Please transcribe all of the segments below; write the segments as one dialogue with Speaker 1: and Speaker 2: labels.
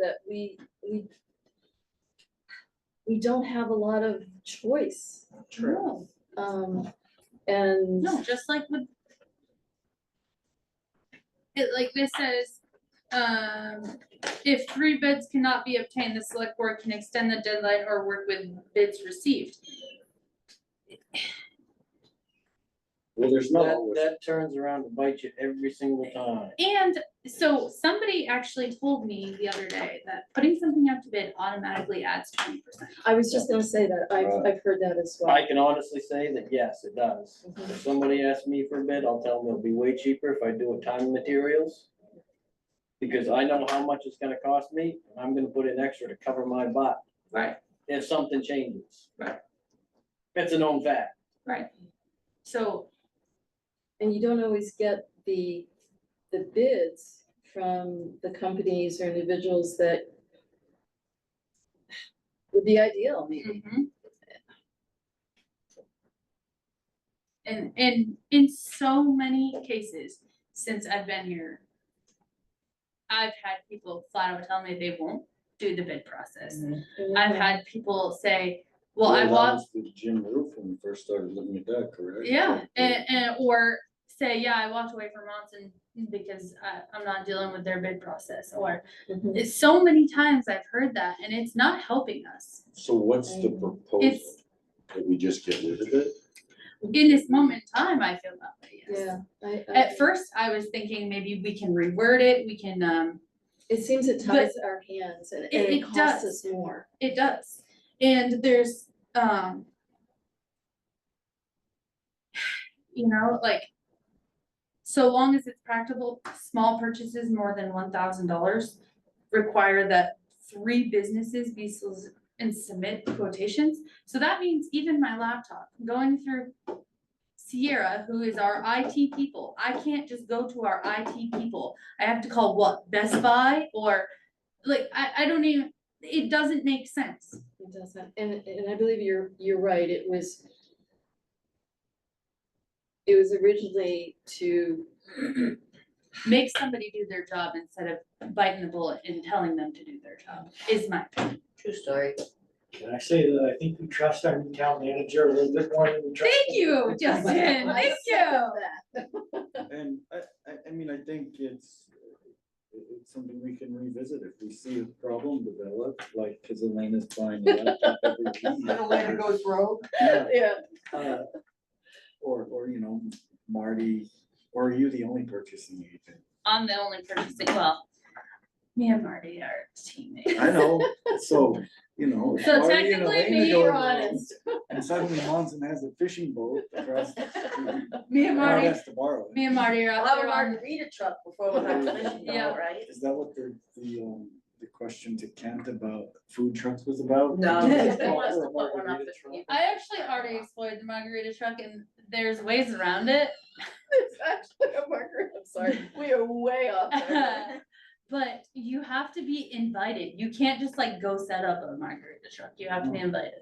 Speaker 1: that we, we we don't have a lot of choice,
Speaker 2: True.
Speaker 1: um, and
Speaker 2: No, just like with. It like this says, um, if three bids cannot be obtained, the select board can extend the deadline or work with bids received.
Speaker 3: Well, there's not
Speaker 4: That,
Speaker 3: always,
Speaker 4: that turns around to bite you every single time.
Speaker 2: And so somebody actually told me the other day that putting something out to bid automatically adds twenty percent.
Speaker 1: I was just gonna say that, I've,
Speaker 3: Right.
Speaker 1: I've heard that as well.
Speaker 4: I can honestly say that, yes, it does.
Speaker 1: Mhm.
Speaker 4: If somebody asks me for a bid, I'll tell them it'll be way cheaper if I do it time and materials. Because I know how much it's gonna cost me, and I'm gonna put in extra to cover my butt
Speaker 2: Right.
Speaker 4: if something changes.
Speaker 2: Right.
Speaker 4: It's a known fact.
Speaker 2: Right. So,
Speaker 1: And you don't always get the, the bids from the companies or individuals that would be ideal, maybe.
Speaker 2: mhm. And, and in so many cases, since I've been here, I've had people flat out tell me they won't do the bid process. Mm, I've had people say, well,
Speaker 3: Well,
Speaker 2: I
Speaker 3: that
Speaker 2: walked
Speaker 3: was with Jim Roof when we first started looking at that, correct?
Speaker 2: Yeah, and, and, or say, yeah, I walked away from Monson because I, I'm not dealing with their bid process, or
Speaker 1: Mhm.
Speaker 2: it's so many times I've heard that, and it's not helping us.
Speaker 3: So what's the proposal?
Speaker 2: It's-
Speaker 3: That we just get rid of it?
Speaker 2: In this moment in time, I feel that way, yes.
Speaker 1: Yeah, I, I.
Speaker 2: At first, I was thinking maybe we can reword it, we can, um,
Speaker 1: It seems it ties our hands and, and
Speaker 2: It-
Speaker 1: it
Speaker 2: it
Speaker 1: costs
Speaker 2: does.
Speaker 1: us more.
Speaker 2: it does, and there's, um. You know, like, so long as it's practical, small purchases more than one thousand dollars require that three businesses be solic- and submit quotations. So that means even my laptop, going through Sierra, who is our IT people, I can't just go to our IT people. I have to call what, Best Buy or, like, I, I don't even, it doesn't make sense.
Speaker 1: It doesn't, and, and I believe you're, you're right, it was. It was originally to,
Speaker 2: Make somebody do their job instead of biting the bullet and telling them to do their job, is my opinion.
Speaker 5: True story.
Speaker 6: Can I say that I think we trust our new town manager a little bit more than we trust?
Speaker 2: Thank you, Justin,
Speaker 1: I
Speaker 2: Oh, thank you.
Speaker 1: second that.
Speaker 7: And I, I, I mean, I think it's, it- it's something we can revisit if we see a problem develop, like, cause Elena's buying a laptop every week.
Speaker 4: Elena goes rogue.
Speaker 7: Yeah,
Speaker 1: Yeah,
Speaker 7: uh, Or, or, you know, Marty, or are you the only purchasing agent?
Speaker 2: I'm the only purchasing, well, me and Marty are teammates.
Speaker 7: I know, so, you know. if
Speaker 2: So
Speaker 7: Marty and
Speaker 2: technically,
Speaker 7: Elena
Speaker 2: we
Speaker 7: go
Speaker 2: are
Speaker 7: rogue,
Speaker 1: honest.
Speaker 7: And suddenly Monson has a fishing boat across. the street,
Speaker 2: Me and
Speaker 7: Marty
Speaker 2: Marty,
Speaker 7: has to borrow it.
Speaker 2: me and Marty are
Speaker 5: I'll
Speaker 2: out
Speaker 5: have a
Speaker 2: there on,
Speaker 5: margarita truck before we have fishing
Speaker 2: Yeah.
Speaker 5: boat, right?
Speaker 7: Is that what the, the, um, the question to Kent about food trucks was about?
Speaker 5: No,
Speaker 1: because
Speaker 5: they want us to put one up this year.
Speaker 2: I actually already explored the margarita truck and there's ways around it.
Speaker 1: It's actually a marker, I'm sorry, we are way off. there.
Speaker 2: But you have to be invited, you can't just like go set up a margarita truck, you have to be invited.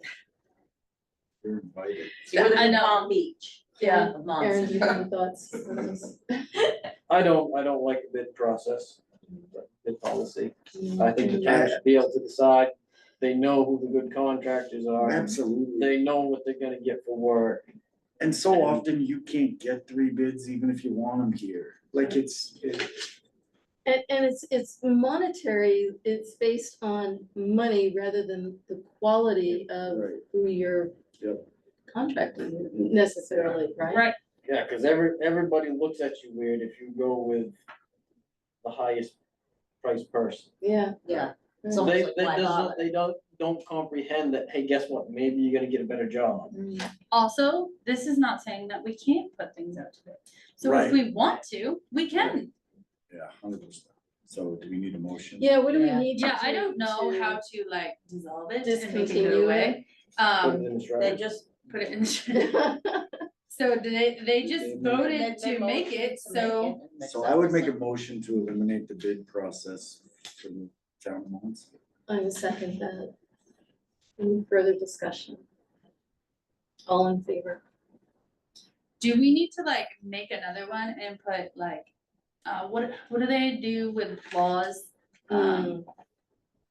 Speaker 7: You're invited.
Speaker 5: You're
Speaker 2: I
Speaker 5: in
Speaker 2: know.
Speaker 5: Palm Beach.
Speaker 2: Yeah.
Speaker 5: Of
Speaker 1: Erin, do
Speaker 5: Monson.
Speaker 1: you have any thoughts on this?
Speaker 4: I don't, I don't like the bid process, but bid policy. I think the
Speaker 7: Yeah.
Speaker 4: town should be able to decide, they know who the good contractors are,
Speaker 7: Absolutely.
Speaker 4: they know what they're gonna get for work.
Speaker 7: And so often you can't get three bids even if you want them here. Like it's, it-
Speaker 1: And, and it's, it's monetary, it's based on money rather than the quality of
Speaker 7: Right.
Speaker 1: who you're
Speaker 7: Yep.
Speaker 1: contracting with necessarily, right?
Speaker 2: Right.
Speaker 4: Yeah, cause every, everybody looks at you weird if you go with the highest priced person.
Speaker 1: Yeah.
Speaker 5: Yeah. It's
Speaker 1: Mm.
Speaker 5: almost
Speaker 4: They,
Speaker 5: like,
Speaker 4: they
Speaker 5: why
Speaker 4: doesn't,
Speaker 5: bother?
Speaker 4: they don't, don't comprehend that, hey, guess what, maybe you're gonna get a better job.
Speaker 1: Mm.
Speaker 2: Also, this is not saying that we can't put things out to bid. So if
Speaker 7: Right.
Speaker 2: we want to, we can.
Speaker 7: yeah, hundred percent. So do we need a motion?
Speaker 1: Yeah, what do we
Speaker 5: Yeah.
Speaker 1: need to
Speaker 2: Yeah, I
Speaker 1: do
Speaker 2: don't know
Speaker 1: to-
Speaker 2: how to like dissolve it and make it
Speaker 1: Discontinue
Speaker 2: go away.
Speaker 4: Put it
Speaker 2: Um,
Speaker 4: in the
Speaker 5: They
Speaker 4: shredder.
Speaker 5: just,
Speaker 2: put it in. So they, they
Speaker 7: They
Speaker 2: just
Speaker 7: made-
Speaker 5: they,
Speaker 2: voted
Speaker 5: they
Speaker 2: to make
Speaker 5: motioned
Speaker 2: it,
Speaker 5: to make
Speaker 2: so
Speaker 5: it and
Speaker 7: So I would make a
Speaker 5: acceptance
Speaker 7: motion to eliminate the bid process for the town months.
Speaker 1: I will second that. Any further discussion? All in favor?
Speaker 2: do we need to like make another one and put like, uh, what, what do they do with laws? Um,
Speaker 1: Mm,